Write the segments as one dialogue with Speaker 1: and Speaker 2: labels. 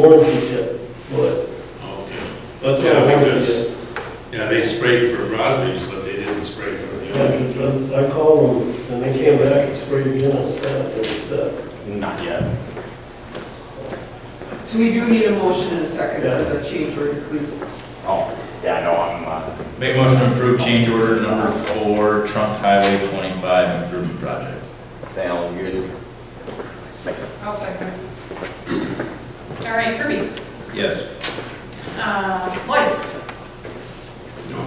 Speaker 1: warranty check, but
Speaker 2: Okay.
Speaker 1: that's
Speaker 2: Yeah,
Speaker 1: all
Speaker 2: I think
Speaker 1: warranty
Speaker 2: that's-
Speaker 1: check.
Speaker 2: Yeah, they sprayed for Rogers, but they didn't spray for the
Speaker 1: Yeah,
Speaker 2: other.
Speaker 1: 'cause I I called them, and they came back and sprayed again on Saturday, and said,
Speaker 3: Not yet.
Speaker 4: So we do need a motion and a second
Speaker 1: Yeah.
Speaker 4: for the change order, please.
Speaker 3: Oh, yeah, no, I'm, uh,
Speaker 5: Make motion to approve change order number four, Trunk Highway 25 improvement project.
Speaker 3: sound good.
Speaker 6: I'll second. All right, Kirby.
Speaker 5: Yes.
Speaker 6: Uh, Lloyd.
Speaker 2: No.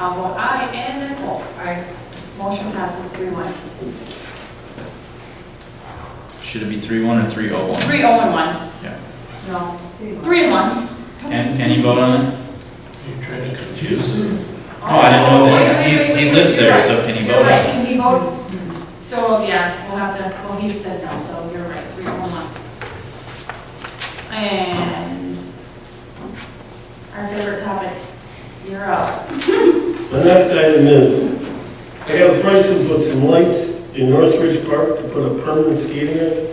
Speaker 6: I'll vote aye, and Nicole. Aye. Motion passes three one.
Speaker 5: Should it be 3-1 or 3-0-1?
Speaker 6: Three oh and one.
Speaker 5: Yeah.
Speaker 6: No, three and one.
Speaker 5: Can, can you vote on it?
Speaker 2: You're trying to confuse them.
Speaker 5: Oh, I didn't know that.
Speaker 6: Oh, wait, wait,
Speaker 5: He-
Speaker 6: wait,
Speaker 5: he
Speaker 6: wait,
Speaker 5: lives
Speaker 6: you're
Speaker 5: there,
Speaker 6: right.
Speaker 5: so can he
Speaker 6: You're
Speaker 5: vote?
Speaker 6: right, can he vote? So, yeah, we'll have to, well, he said no, so you're right, three oh and one. And our favorite topic, you're up.
Speaker 1: The next item is, I have prices to put some lights in Northridge Park to put a permanent skating rink.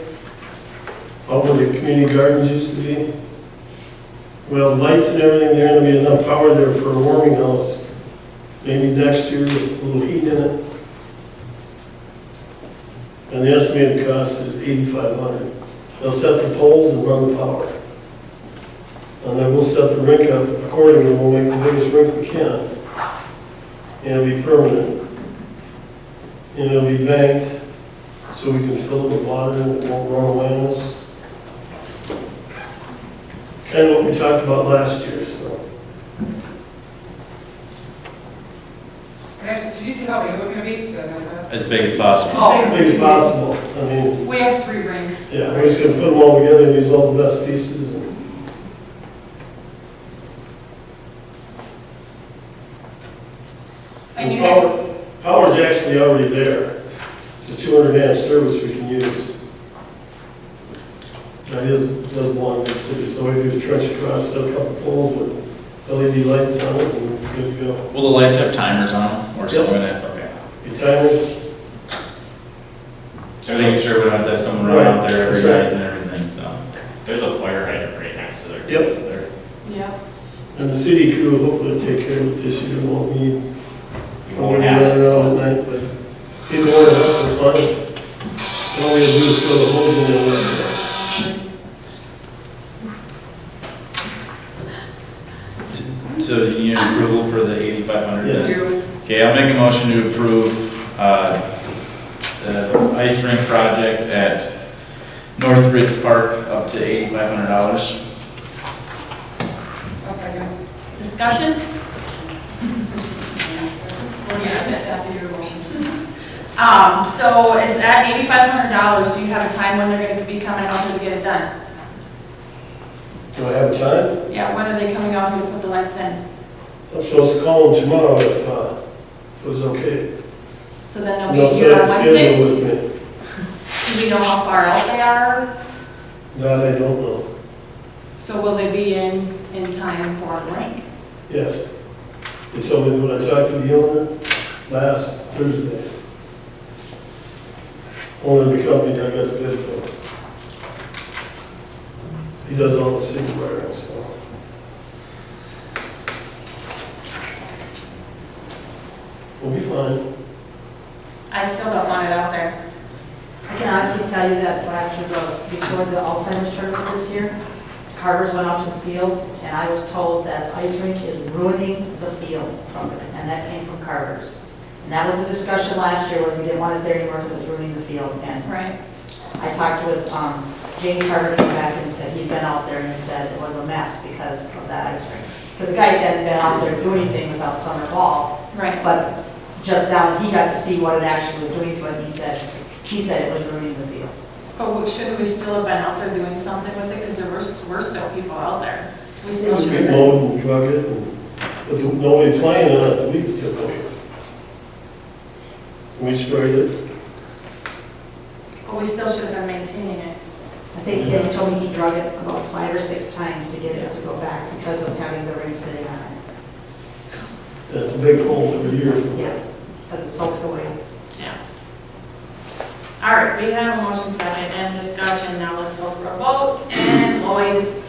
Speaker 1: Out where the community gardens used to be. Well, lights and everything, there gonna be enough power there for a warming house. Maybe next year with a little heat in it. And the estimated cost is eighty-five hundred. They'll set the poles and run the power. And then we'll set the rink up accordingly, we'll make the biggest rink we can and it'll be permanent. And it'll be banked, so we can fill it with water and it won't run away on us. Kind of what we talked about last year, so.
Speaker 7: Did you see how big it was gonna be? Did I mess that up?
Speaker 5: As big as possible.
Speaker 6: Oh,
Speaker 1: Big as possible, I mean,
Speaker 6: We have three rings.
Speaker 1: yeah, we're just gonna put them all together and use all the best pieces and.
Speaker 6: And you
Speaker 1: The power- Power's actually already there, the two hundred amp service we can use. That is, does belong to the city, so we do a trench across, set a couple poles with LED lights on it, and we're good to go.
Speaker 5: Will the lights have timers on them
Speaker 1: Oh.
Speaker 5: or
Speaker 1: Yep.
Speaker 5: something like that? Okay.
Speaker 1: Your timers,
Speaker 5: Just making sure we don't have to have someone run out there every night and everything, so.
Speaker 3: There's a fire hydrant right next to their.
Speaker 1: Yep.
Speaker 3: their-
Speaker 6: Yeah,
Speaker 1: and the city crew will hopefully take care of it this year, won't need,
Speaker 3: Oh, You
Speaker 1: won't
Speaker 3: won't
Speaker 1: be
Speaker 3: have
Speaker 1: running
Speaker 3: it.
Speaker 1: around at night, but people want to help, it's fun. And all we have to do is fill the holes in there. and-
Speaker 5: So do you need approval for the 8,500?
Speaker 1: Yes.
Speaker 5: Okay, I'll make a motion to approve uh, the ice rink project at North Ridge Park up to $8,500.
Speaker 7: I'll second.
Speaker 6: discussion? Well, Oh, yeah, that's after your motion. Um, so it's at eighty-five hundred dollars, do you have a time when they're gonna be coming out here to get it done?
Speaker 1: Do I have time?
Speaker 6: Yeah, when are they coming out here to put the lights in?
Speaker 1: I'm supposed to call them tomorrow if, uh, if it was okay.
Speaker 6: So then
Speaker 1: And they'll
Speaker 6: they'll be here
Speaker 1: set a
Speaker 6: on Wednesday?
Speaker 1: schedule with me.
Speaker 6: Do we know how far out they are?
Speaker 1: That I don't know.
Speaker 6: So will they be in, in time for the rink?
Speaker 1: Yes. They told me when I talked to the owner last Thursday. Owner of the company that I got the bid for. He does all the city wiring, so. We'll be fine.
Speaker 6: I still don't want it out there.
Speaker 8: I can honestly tell you that when I was uh, before the Alzheimer's tournament this year, Carter's went out to the field, and I was told that ice rink is ruining the field from it, and that came from Carter's. And that was the discussion last year, was we didn't want it there anymore because it was ruining the field, and
Speaker 6: Right.
Speaker 8: I talked with um, Jane Carter, came back and said he'd been out there, and he said it was a mess because of that ice rink. Because the guys hadn't been out there doing anything without summer ball,
Speaker 6: Right.
Speaker 8: but just now, he got to see what it actually was doing to it, he said, he said it was ruining the field.
Speaker 6: But we- shouldn't we still have been out there doing something with it, because there were, were still people out there. We still should have
Speaker 1: We
Speaker 6: been.
Speaker 1: mowed and drug it and, but the- nobody playing uh, on it, the weeds took over. We sprayed it.
Speaker 6: But we still should have been maintaining it.
Speaker 8: I think that he told me he drug it about five or six times to get it to go back because of having the rain sitting on it.
Speaker 1: And It's uh, a big hole every year.
Speaker 8: Yeah, because it soaks away.
Speaker 6: Yeah. All right, we have a motion second and discussion, now let's go for a vote, and blowing